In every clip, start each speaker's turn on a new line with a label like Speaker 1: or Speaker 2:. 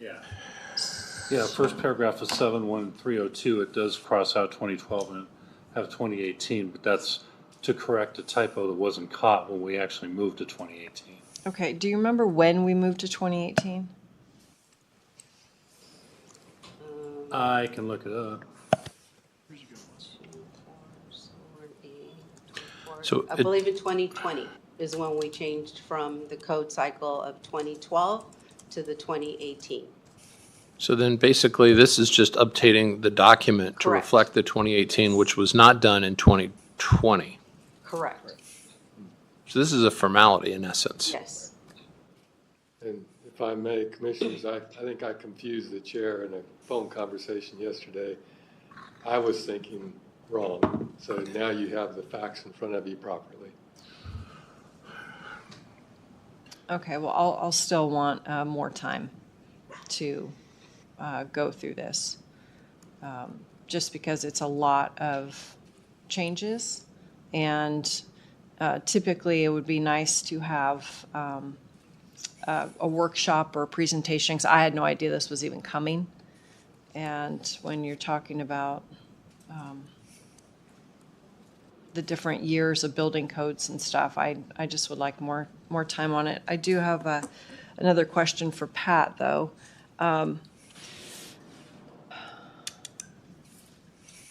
Speaker 1: Yeah.
Speaker 2: Yeah, first paragraph of seven one three oh two, it does cross out twenty twelve and have twenty eighteen, but that's to correct a typo that wasn't caught when we actually moved to twenty eighteen.
Speaker 3: Okay, do you remember when we moved to 2018?
Speaker 2: I can look it up.
Speaker 4: So
Speaker 5: I
Speaker 4: it-
Speaker 5: believe in 2020 is when we changed from the code cycle of 2012 to the 2018.
Speaker 4: So then basically, this is just updating the document to
Speaker 5: Correct.
Speaker 4: reflect the 2018, which was not done in 2020.
Speaker 5: Correct.
Speaker 4: So this is a formality in essence.
Speaker 5: Yes.
Speaker 6: And if I may, Commissioners, I, I think I confused the chair in a phone conversation yesterday. I was thinking wrong, so now you have the facts in front of you properly.
Speaker 3: Okay, well, I'll, I'll still want uh, more time to uh, go through this, um, just because it's a lot of changes. And uh, typically, it would be nice to have um, a a workshop or a presentation, because I had no idea this was even coming. And when you're talking about um, the different years of building codes and stuff. I, I just would like more, more time on it. I do have a, another question for Pat, though. Um,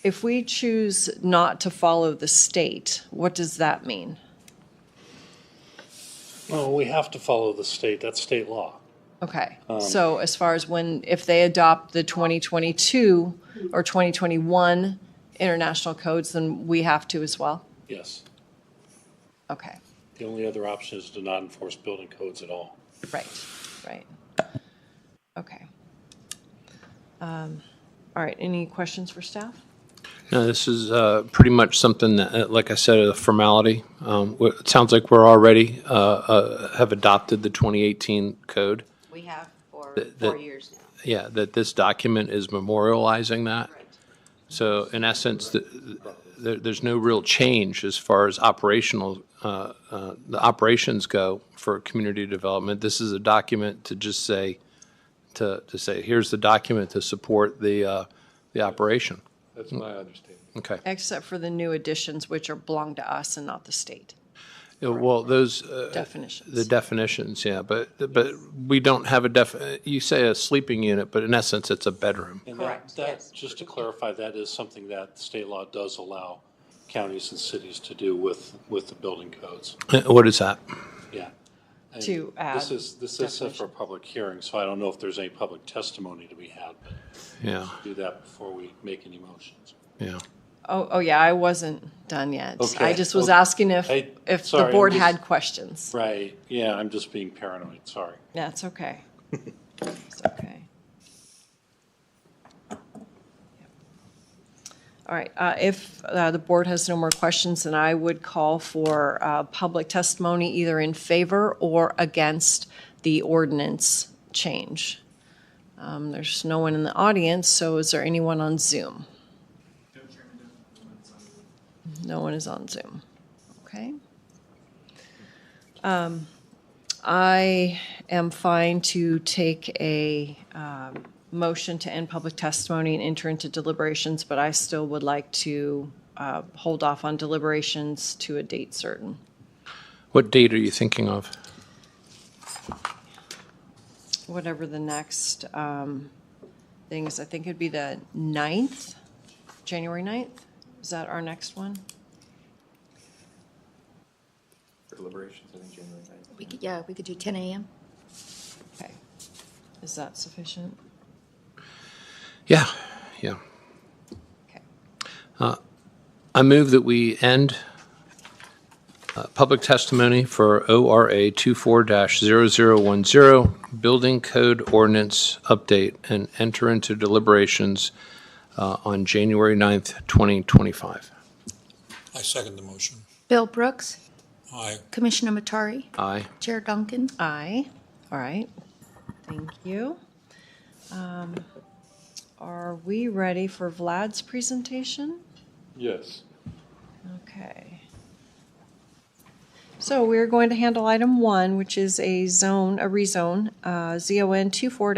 Speaker 3: If we choose not to follow the state, what does that mean?
Speaker 2: Well, we have to follow the state, that's state law.
Speaker 3: Okay, so as far as when, if they adopt the 2022 or 2021 international codes, then we have to as well?
Speaker 2: Yes.
Speaker 3: Okay.
Speaker 2: The only other option is to not enforce building codes at all.
Speaker 3: Right, right. Okay. Um, All right, any questions for staff?
Speaker 4: No, this is uh, pretty much something that, uh, like I said, a formality. Um, w- It sounds like we're already, uh, uh, have adopted the 2018 code.
Speaker 5: We have for
Speaker 4: The-
Speaker 5: four
Speaker 4: the-
Speaker 5: years now.
Speaker 4: Yeah, that this document is memorializing that.
Speaker 5: Correct.
Speaker 4: So in essence, th- th- there, there's no real change as far as operational, uh, uh, the operations go for community development. This is a document to just say, to, to say, here's the document to support the, uh, the operation.
Speaker 6: That's my understanding.
Speaker 4: Okay.
Speaker 3: Except for the new additions, which are belong to us and not the state
Speaker 4: Uh, Well, those, uh, the
Speaker 3: definitions.
Speaker 4: definitions, yeah, but, but we don't have a def, you say a sleeping unit, but in essence, it's a bedroom.
Speaker 2: And that,
Speaker 5: Correct,
Speaker 2: that,
Speaker 5: yes.
Speaker 2: just to clarify, that is something that state law does allow counties and cities to do with, with the building codes,
Speaker 4: Uh, What is that?
Speaker 2: yeah. And
Speaker 3: To add
Speaker 2: This is, this is set for
Speaker 3: definition.
Speaker 2: a public hearing, so I don't know if there's any public testimony to be had, but
Speaker 4: Yeah,
Speaker 2: do that before we make any motions.
Speaker 4: yeah.
Speaker 3: Oh, oh, yeah, I wasn't done yet. I
Speaker 2: Okay,
Speaker 3: just was
Speaker 2: okay.
Speaker 3: asking if,
Speaker 2: I-
Speaker 3: if
Speaker 2: sorry,
Speaker 3: the
Speaker 2: I'm
Speaker 3: board
Speaker 2: just-
Speaker 3: had questions.
Speaker 2: Right, yeah, I'm just being paranoid, sorry.
Speaker 3: That's okay. It's okay. All right, uh, if uh, the board has no more questions, then I would call for uh, public testimony either in favor or against the ordinance change. Um, There's no one in the audience, so is there anyone on Zoom? No one is on Zoom. Okay. I am fine to take a um, motion to end public testimony and enter into deliberations, but I still would like to uh, hold off on deliberations to a date certain.
Speaker 4: What date are you thinking of?
Speaker 3: Whatever the next um, thing is, I think it'd be the 9th, January 9th? Is that our next one?
Speaker 7: deliberations, I think, January ninth.
Speaker 8: We could, yeah, we could do ten AM.
Speaker 3: Okay. Is that sufficient?
Speaker 4: Yeah, yeah. Uh,
Speaker 3: Okay.
Speaker 4: I move that we end uh, public testimony for ORA 24-0010, Building Code Ordinance Update, and enter into deliberations uh, on January 9th, 2025.
Speaker 9: I second the motion.
Speaker 8: Bill Brooks,
Speaker 9: Aye.
Speaker 8: Commissioner Matari,
Speaker 4: Aye.
Speaker 8: Chair Duncan.
Speaker 3: Aye. All right. Thank you. Um, Are we ready for Vlad's presentation?
Speaker 6: Yes.
Speaker 3: Okay. So we're going to handle item one, which is a zone, a rezone, uh, ZON 24